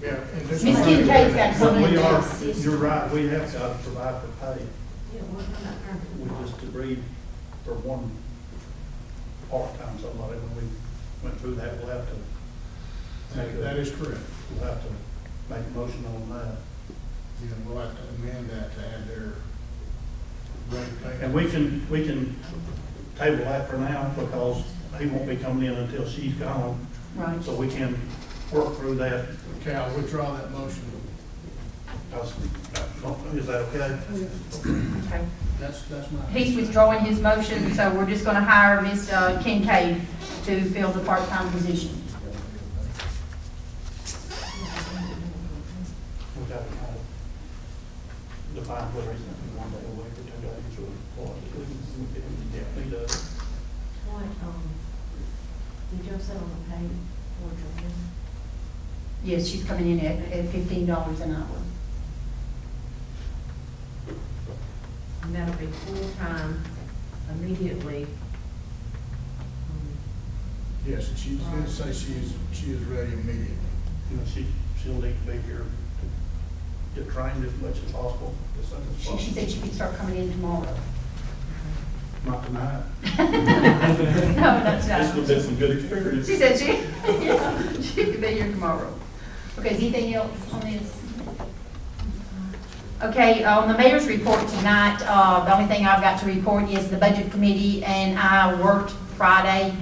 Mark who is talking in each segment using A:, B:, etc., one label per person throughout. A: Yeah. and this-
B: Miss Kim K's got so many
A: We are-
B: things.
A: You're right, we have got to provide for pay. We just agreed for one part-time somebody, when we went through that, we'll have to. make a-
C: That that is correct.
A: We'll have to make a motion on that.
C: You know, we'll have to amend that to add their rate
A: And
C: pay.
A: we can, we can table that for now because he won't be coming in until she's gone.
B: Right.
A: So we can work through that.
C: Okay, I'll withdraw that motion.
A: That's- Is that okay?
B: Okay.
C: That's, that's my.
B: He's withdrawing his motion, so we're just gonna hire Miss uh, Kincaid to fill the part-time position.
A: We gotta kind of define whether it's gonna be one day a week or two days or what. We can- we can definitely do it.
D: What, um, did y'all settle the pay for Joanne?
B: Yes, she's coming in at, at fifteen dollars an hour.
D: And that'll be full-time immediately. Um,
C: Yes, and she did say she is, she is ready immediately.
A: You know, she, she'll need to be here to get trained as much as possible, as soon as
B: She, she
A: possible.
B: said she could start coming in tomorrow.
A: Not tonight.
B: No, that's
A: This will
B: not.
A: be some good experience.
B: She said she, yeah, she could be here tomorrow. Okay, is anything else on this? Okay, uh, on the mayor's report tonight, uh, the only thing I've got to report is the budget committee and I worked Friday,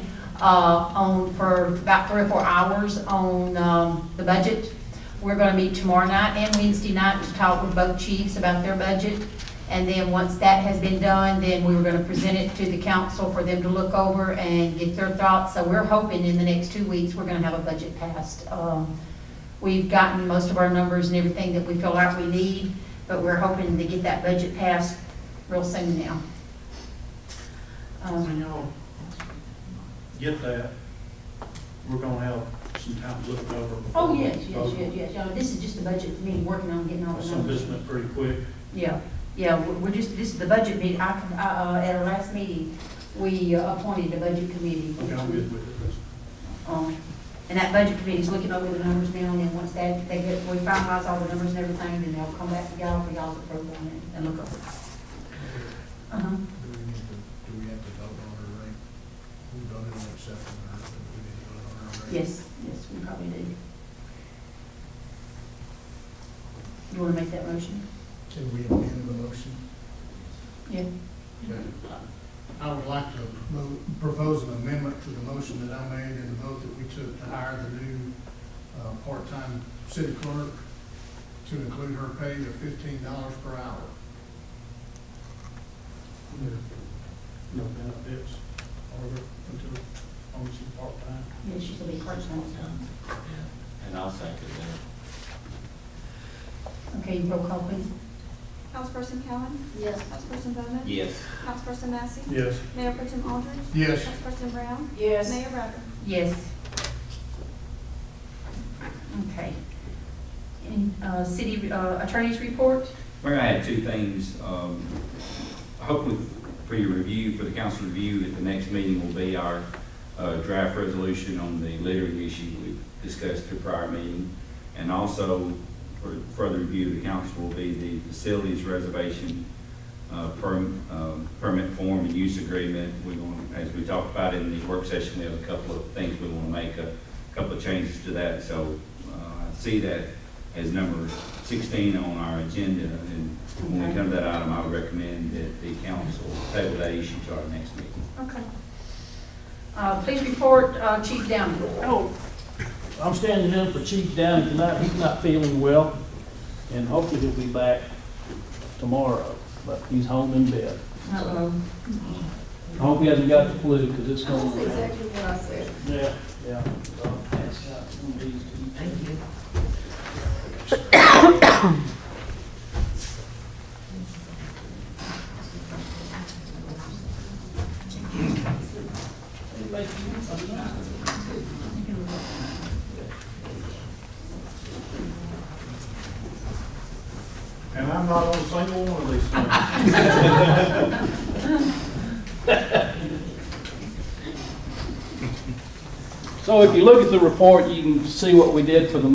B: uh, on, for about three or four hours on, um, the budget. We're gonna meet tomorrow night and Wednesday night to talk with both chiefs about their budget. And then once that has been done, then we were gonna present it to the council for them to look over and get their thoughts. So we're hoping in the next two weeks, we're gonna have a budget passed, um, We've gotten most of our numbers and everything that we feel like we need, but we're hoping to get that budget passed real soon now.
A: When
B: Um,
A: y'all get that, we're gonna have some time to look over. before
B: Oh,
A: we
B: yes, yes,
A: vote.
B: yes, yes, yeah, this is just the budget meeting, working on getting all the
A: Some of
B: numbers.
A: this went pretty quick.
B: Yeah, yeah, we're we're just, this is the budget meeting, I, I, uh, at our last meeting, we uh, appointed a budget committee.
A: Okay, I'm good with it.
B: Um, And that budget committee's looking over the numbers now, and then once that, they get, we finalize all the numbers and everything, then they'll come back to y'all for y'all's approval and- and look over.
C: Do
B: Uh-huh.
C: we need to, do we have to vote on her rate? We voted on accepting her, but we didn't vote on her rate.
B: Yes, yes, we probably do. You want to make that motion?
C: Can we amend the motion?
B: Yeah.
C: Okay. I would like to mo- propose an amendment to the motion that I made and the vote that we took to hire the new uh, part-time city clerk to include her pay of fifteen dollars per hour.
A: No benefits, or until, only some part-time.
B: Yes, she's going to be part-time.
E: Yeah, And I'll second that.
B: Okay, roll call, please.
F: Councilperson Cowan?
B: Yes.
F: Councilperson Bowman?
E: Yes.
F: Councilperson Massey?
A: Yes.
F: Mayor Tim Aldridge?
C: Yes.
F: Councilperson Brown?
D: Yes.
F: Mayor Rabbit?
B: Yes. Okay. And, uh, city uh, attorney's report?
E: Mayor, I had two things, um, hopefully for your review, for the council review at the next meeting will be our, uh, draft resolution on the littering issue we discussed through prior meeting. And also, for further review of the council will be the facilities reservation, uh, perm, um, permit form and use agreement. We're going, as we talked about in the work session, we have a couple of things we want to make, a couple of changes to that. So, uh, I see that as number sixteen on our agenda, and when we come to that item, I would recommend that the council table that issue to our next meeting.
B: Okay. Uh, please report, uh, Chief Downey.
G: Oh, I'm standing in for Chief Downey tonight, he's not feeling well, and hopefully he'll be back tomorrow, but he's home in bed.
B: Uh-oh.
G: I hope he hasn't got the flu, because it's going
D: That's
G: around.
D: exactly what I said.
G: Yeah, yeah. so that's got some disease to eat.
D: Thank you.
A: And I'm not on a single one of these things.
G: So if you look at the report, you can see what we did for the